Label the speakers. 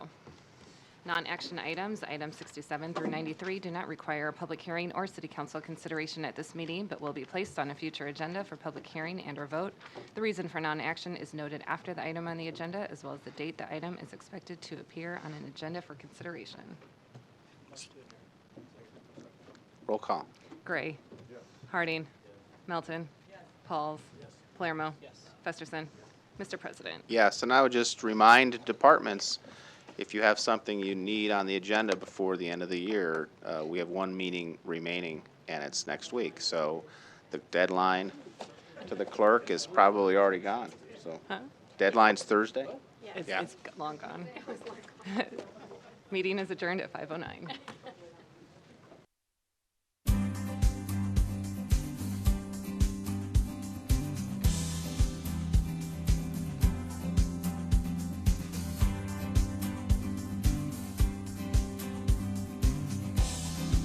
Speaker 1: Non-action items, items 67 through 93, do not require a public hearing or city council consideration at this meeting, but will be placed on a future agenda for public hearing and/or vote. The reason for non-action is noted after the item on the agenda, as well as the date the item is expected to appear on an agenda for consideration.
Speaker 2: Roll call.
Speaker 1: Gray. Harding. Melton. Pauls. Palermo. Festerson. Mr. President.
Speaker 2: Yes, and I would just remind departments, if you have something you need on the agenda before the end of the year, uh, we have one meeting remaining, and it's next week. So the deadline to the clerk is probably already gone, so. Deadline's Thursday?
Speaker 1: It's
Speaker 2: Yeah.
Speaker 1: it's long gone. Meeting is adjourned at 5:09.